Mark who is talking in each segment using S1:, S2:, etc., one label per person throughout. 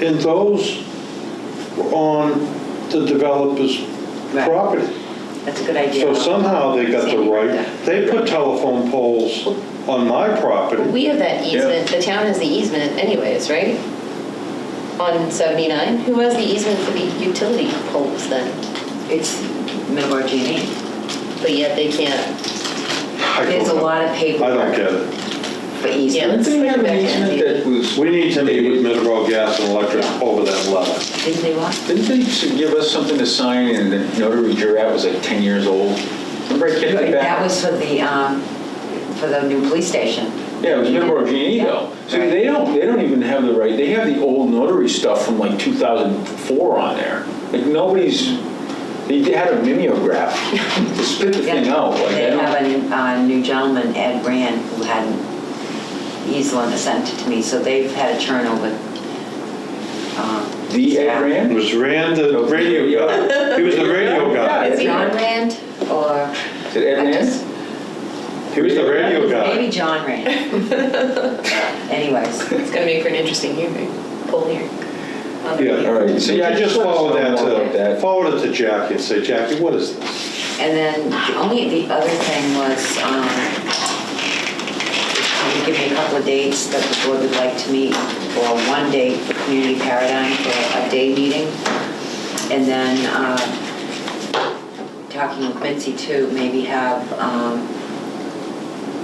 S1: And those were on the developer's
S2: Right.
S1: property.
S2: That's a good idea.
S1: So somehow they got the right, they put telephone poles on my property.
S3: We have that easement, the town has the easement anyways, right? On 79? Who has the easement for the utility poles then?
S2: It's Middleborough
S3: E.
S2: G&E.
S3: But yet they can't.
S1: I
S2: There's a
S1: don't-
S2: lot of
S1: I don't
S2: paperwork
S1: get it.
S2: for easements.
S3: Yeah.
S4: Didn't they have an easement that was,
S1: We need to meet with Middleborough Gas and Electric over that letter.
S2: Didn't they want?
S4: didn't they s- give us something to sign and the notary drew out was like 10 years old? Remember I kicked it
S2: That
S4: back?
S2: was for the, um, for the new police station.
S4: Yeah, it was Middleborough G&E though. So
S2: Right.
S4: they don't, they don't even have the right, they have the old notary stuff from like 2004 on there. Like nobody's, they had a mimeograph to spit the thing out. like, I
S2: They
S4: don't-
S2: have a uh, new gentleman, Ed Rand, who hadn't, he's the one that sent it to me, so they've had a turnover. um,
S4: The Ed
S2: staff.
S1: It
S4: Rand?
S1: was Rand, the radio guy. He was the radio guy.
S3: Is he
S4: Yeah.
S3: on land or?
S4: Is it Ed
S3: I
S4: Rand?
S3: just-
S1: He was the radio guy.
S2: Maybe John Rand. Anyways,
S3: It's gonna make for an interesting hearing, poll hearing. on the
S1: Yeah.
S3: radio.
S4: All right, so
S1: So yeah, just follow that
S4: Like
S1: to,
S4: that.
S1: forward it to Jackie and say, Jackie, what is this?
S2: and then the only, the other thing was, um, can you give me a couple of dates that the board would like to meet, or one date for Community Paradigm for a day meeting? And then, um, talking with Mitzi too, maybe have, um,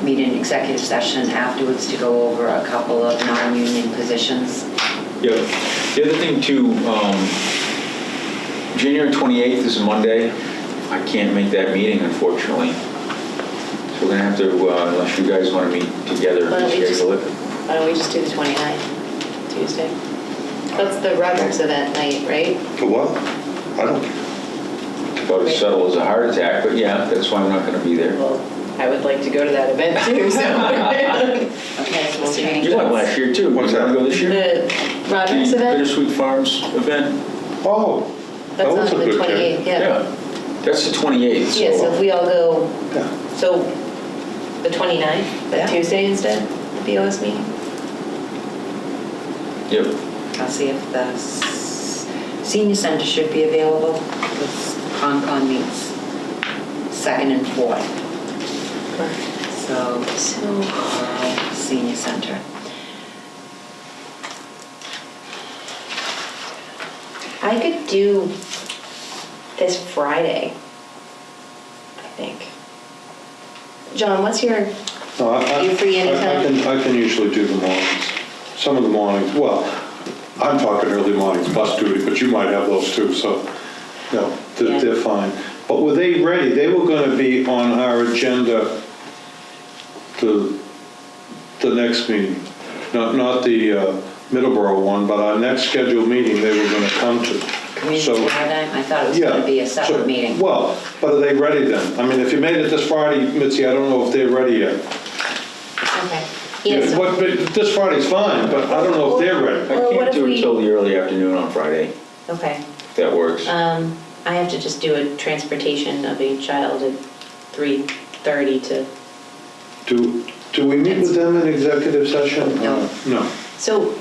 S2: meet in executive session afterwards to go over a couple of non-union positions.
S4: Yeah. The other thing too, um, January 28th is Monday. I can't make that meeting unfortunately. So we're gonna have to, uh, unless you guys wanna meet together
S3: Why don't
S4: and
S3: we just-
S4: schedule it.
S3: Why don't we just do the 29th, Tuesday? That's the Roberts event night, right?
S1: The what? I don't care.
S4: About as subtle as a heart attack, but yeah, that's why I'm not gonna be there.
S3: Well, I would like to go to that event too, so.
S2: Okay, so we'll change.
S4: You went last year too.
S1: What's
S4: You wanna
S1: that?
S4: Go this year?
S3: The Roberts
S4: The
S3: event,
S4: Bittersweet Farms event.
S1: Oh, that
S3: that's
S1: was a
S3: on the
S1: good catch.
S3: 28th, yeah.
S4: That's the 28th,
S3: Yeah, so if
S4: so
S3: we all go
S1: Yeah.
S3: So the 29th,
S2: Yeah.
S3: that Tuesday instead, the BOS meeting?
S4: Yep.
S2: I'll see if the s- senior center should be available, because Concon meets second and fourth, so
S3: So,
S2: uh, senior center.
S3: I could do this Friday, I think. John, what's your,
S1: No, I- I-
S3: You free
S1: I- I
S3: anytime?
S1: can, I can usually do the mornings, some of the mornings, well, I'm talking early mornings, bus duty, but you might have those too, so, no,
S2: Yeah.
S1: they're, they're fine. But were they ready, they were gonna be on our agenda to the next meeting, not, not the uh, Middleborough one, but our next scheduled meeting they were gonna come to. So-
S2: Community paradigm, I thought it was
S1: yeah.
S2: gonna be a
S1: so-
S2: separate meeting.
S1: Well, but are they ready then? I mean, if you made it this Friday, Mitzi, I don't know if they're ready yet.
S3: okay. Yeah,
S1: Yeah,
S3: so-
S1: But but this Friday's fine, but I don't know if they're
S4: I
S1: ready.
S3: Well, what
S4: can't
S3: if
S4: do
S3: we-
S4: it till the early afternoon on Friday,
S3: Okay.
S4: if that works.
S3: Um, I have to just do a transportation of a child at 3:30 to,
S1: Do, do we meet with them in executive session?
S2: No.
S1: No.
S3: so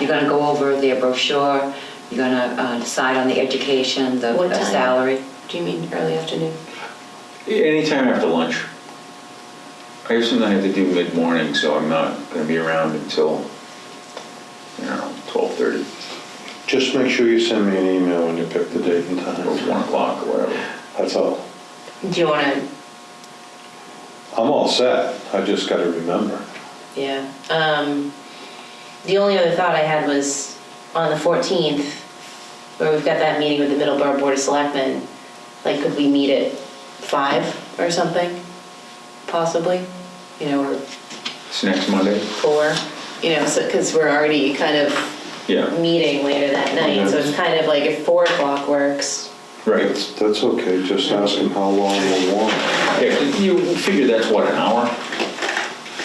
S2: You're gonna go over their brochure, you're gonna uh, decide on the education, the
S3: What
S2: the
S3: time?
S2: salary.
S3: do you mean early afternoon?
S4: Anytime after lunch. I have something I have to do mid-morning, so I'm not gonna be around until, you know, 12:30
S1: Just make sure you send me an email when you pick the date and
S4: or
S1: time.
S4: 1 o'clock or whatever.
S1: That's all.
S3: Do you want to
S1: I'm all set. I just got to remember.
S3: Yeah. Um, the only other thought I had was on the 14th, where we've got that meeting with the Middleborough Board of Selectmen, like, could we meet at 5 or something? Possibly? You know, or
S4: It's next Monday?
S3: 4, you know, because we're already kind of
S4: Yeah,
S3: meeting later that night. So it's kind of like if 4 o'clock works,
S4: right.
S1: That's that's okay. Just ask them how long they want.
S4: Yeah, you figure that's what, an hour?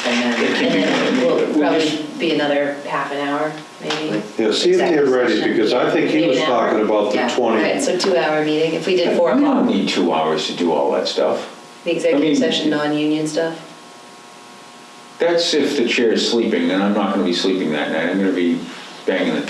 S2: And
S4: It
S2: then,
S4: can
S3: and
S4: be-
S3: then
S4: we'll
S3: we'll
S4: just-
S3: probably be another half an hour, maybe.
S1: Yeah, see if they're
S2: Executive
S1: ready
S2: session.
S1: because I think he
S3: Maybe
S1: was
S3: an hour.
S1: talking about the
S2: Yeah.
S1: 20th.
S3: Right, so two-hour meeting, if we did 4
S4: We don't
S3: o'clock,
S4: need two hours to do all that stuff.
S3: the
S4: I mean-
S3: executive session, non-union stuff.
S4: That's if the chair is sleeping, and I'm not gonna be sleeping that night. I'm gonna be banging the